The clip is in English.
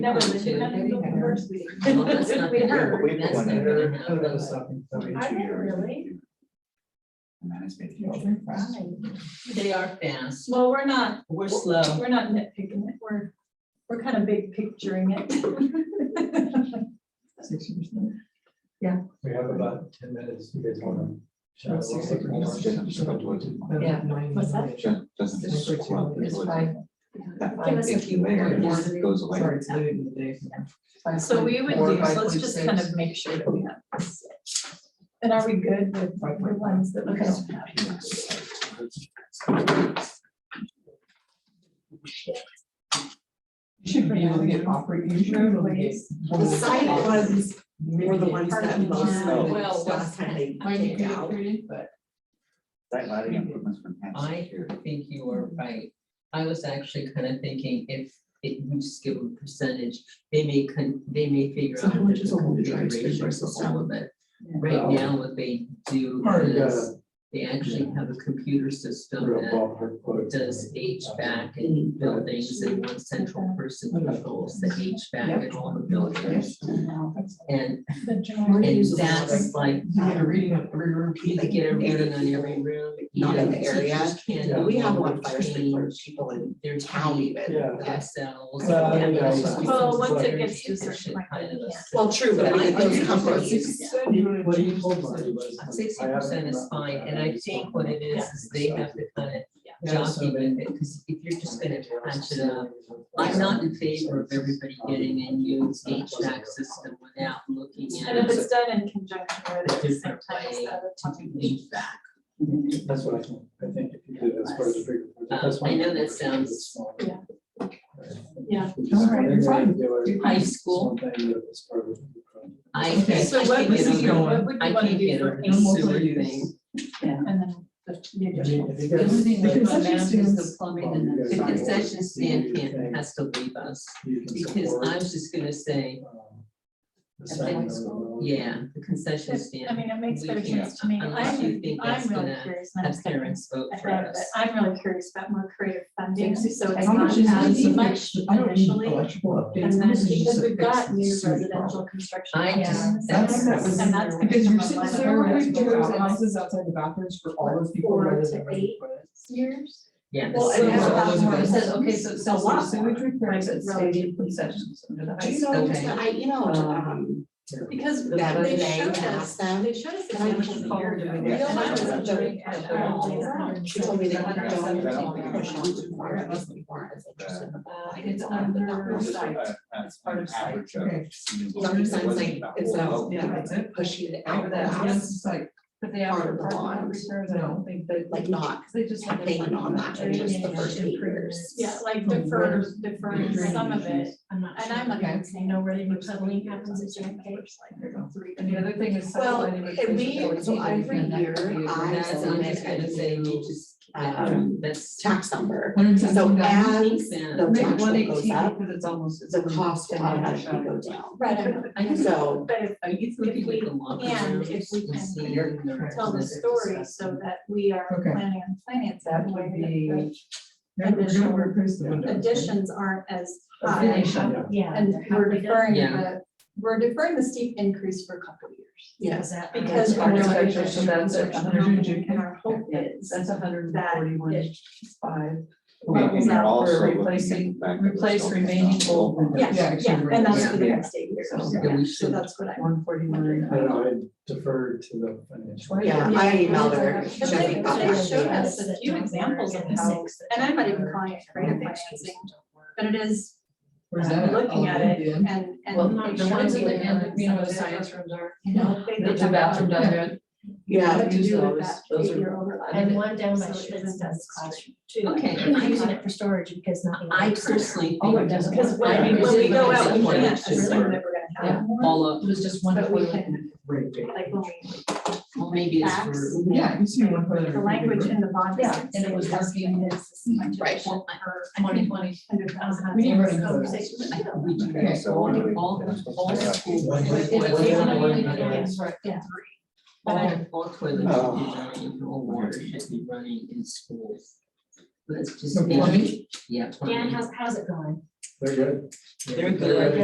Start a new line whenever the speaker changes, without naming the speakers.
No, but she had it the first week.
Well, that's not
We
the-
heard.
But we put
That's
one
not
in
gonna
there,
happen.
that was something for each
I didn't
year.
really.
And then it's made it
Right.
open.
They are fast.
Well, we're not,
We're slow.
we're not nitpicking it, we're, we're kind of big picturing it.
Six years now.
We have about ten minutes, you guys wanna. chat a
Six
little bit more?
years. Yeah, just about what it is.
Yeah.
What's that?
Sure, doesn't
It's
squat,
fine.
it
It's
would-
fine.
That
Give
fine
us a
pinky layer
more.
just goes away.
Sorry, it's late in the day.
So we would
Four
do,
by
so let's just kind of make sure that we have. this. And are we good with the ones that we don't have?
You Should be able to get opera, you should be able to get.
The side ones were the ones that lost
Yeah.
the
Well,
last time they kicked out.
But
That lighting improvements from past
I
year.
think you are right. I was actually kind of thinking if it, we just give them percentage, they may, con- they may figure
So
out
how
the
much is a whole drive
configuration of
space versus
all of it. Right
Yeah.
now, what they do
Or,
is
uh,
they actually have a computer system
Real Mm,
that
ballpark quote.
does HVAC in buildings and one central person controls the HVAC in all the buildings. And,
The general-
and that's like,
you get a reading of every room.
you could get a reading on every room.
Not in the
even
area.
teachers can't
Yeah.
But We have one
change
fire sprinkler, people in
Their
town
town
even.
Yeah.
themselves.
Well, I
and
think
that's
that's-
just
Well,
becomes
once it
very
gets to a certain
efficient
point,
kind of
you
a
can't.
Well, true, but I mean, those companies.
Even what he told me was.
Sixty
I haven't
percent is
gotten
fine,
that.
and I think what it is, is they have to kind of
Yeah, so
jockey with
they-
it, because if you're just gonna patch it up. I'm not in favor of everybody getting a new HVAC system without looking
And if
at
it's done in conjunction with it, sometimes that would probably-
HVAC.
That's what I think, I think if you do that's part of the bigger.
Um, I
that's one
know
of the
that sounds-
bigger-
yeah. Yeah.
Which is what
Alright,
they're
fine.
gonna do is
High school.
something that was part of the project.
I can't,
So
I
what
can't
would
get
you,
over,
what would
I
you want to
can't
do
get
for
over
eight
the
animal
sewer
use.
thing.
and then the, the
I
additional?
mean, if you
The only
guys-
thing
The
that comes
concession
out is the
stand-
plumbing and
The
Yeah.
the.
concession stand can't, has to leave us,
you can
because
support,
I was just gonna say,
um, the
I
second
think-
row.
yeah, the concession
I
stand.
mean, it makes
we
better
can't-
sense to me.
unless you
I'm,
think
I'm
that's
really
gonna
curious. and I'm
Have
stepping
parents vote for
ahead,
us.
but I'm really curious about more creative funding, so it's
How much
not
is it
as
to
much
I don't need
initially.
electrical updates.
And then
This is just
because
a
we've got
fixed
new
sewer problem.
residential construction.
I
going on
just-
in the
that's-
center,
that was-
And that's. gonna
Because
come
you're
up
sitting
like
there
four
with doors and
hours
houses outside the bathrooms for all those people.
Four
rather
to
than
eight.
residents.
Years.
Yeah. the
Well, and
sewer
that's about
was
more-
gonna-
it says,
okay, so
sells a lot
Sewage repairs at stadium concessions under the
Do
high
you
school.
know,
Okay.
I, you know, um,
Because
that
they
they
showed us,
asked them,
they showed us
And I
examples
just
a
called
year
them.
ago.
Yeah.
And I was wondering at
Yeah.
all.
she told me they don't,
Yeah.
don't push on too far, it wasn't far, it's interesting.
Uh, It's under
It's
site.
a- a-
part of
an
site.
average of
Okay.
single- it
Sometimes
wasn't
like,
about-
it's
Oh,
not,
Yeah,
yeah,
that's it.
pushing it out
After
of
that,
the
it's
house,
just like, but they have
Part of the
apartment
bond.
repairs, I don't think that.
like not
They just have.
they went on that in just the first eight years.
Yeah, like
From
defer,
where?
defer some of it, and I'm like, I'm saying, no, really,
Okay.
remodeling happens at Jan K, like,
There you go.
three.
And the other thing is.
Well,
subdividing with
and
this
we-
ability
so
to do
every
that.
year I
That's, I'm just gonna say, you just, um, that's.
Tax number,
Hundred and
so
seventeen thousand.
as the
Make
tax
one
rate goes
eighteen
up,
because it's almost.
the cost will
Yeah.
automatically go down.
Right, I know.
I just-
So
but if,
Are you thinking we can walk
and
around
if we
and
can
see the
tell the
residents?
story so that we are
Okay.
planning on finance that
That
way,
would
that
be-
Maybe we're gonna
replace the
the additions aren't as high.
Addition.
Yeah.
And we're deferring
Yeah.
the, we're deferring the steep increase for a couple of years.
Yes,
Because we're doing
Architecture, so that's a hundred and
construction, And our hope is
That's a hundred and
that
forty-one,
it-
five.
Well, I mean, they're
We're
also looking at
replacing-
the fact that they're
Replace
still-
remaining old windows.
Yeah, yeah, and that's for the next eight years.
So-
Yeah, we
So
should.
that's what I.
One
I
forty-one.
don't know, I defer to the financial.
Yeah, I emailed her,
Because they,
Jenny got
they
back
showed
to
us
us.
a few examples of how, and I'm not even calling it creative financing, but it is,
Where's that?
Looking at it,
Yeah.
and, and.
Well,
they
the
showed
ones in
me
the, end, you know, where the
some of it.
science rooms are.
You know, they-
The bathroom down there.
Yeah,
What to
use
do with
those.
that
Those are-
eight-year overlap.
And one down by
So it
Schmidt's
isn't
does
as
classroom too.
Okay.
And I'm using it for storage because not.
I personally
Oh, it
think
doesn't.
Because when,
I
we-
mean,
when we go out, we
it's
can't
important
assume that
to-
we're gonna have more,
all of,
It was just
one
one
toilet
toilet.
and like when we,
well, maybe it's
Facts.
for.
Yeah, you see one toilet.
the language in the bond.
Yeah,
doesn't
and it
say
was
that's
working.
what it is, it's much
Right.
more per
Twenty twenty.
hundred thousand.
We didn't write
So
those.
say, you
I
know,
think we do.
Okay, so what do we-
All, all schools.
One-
All
one-
toilets-
Yeah.
all toilets should be running, all water should be running in schools. Let's just.
No plumbing?
Yeah.
Dan,
plumbing.
how's, how's it going?
They're good.
They're good.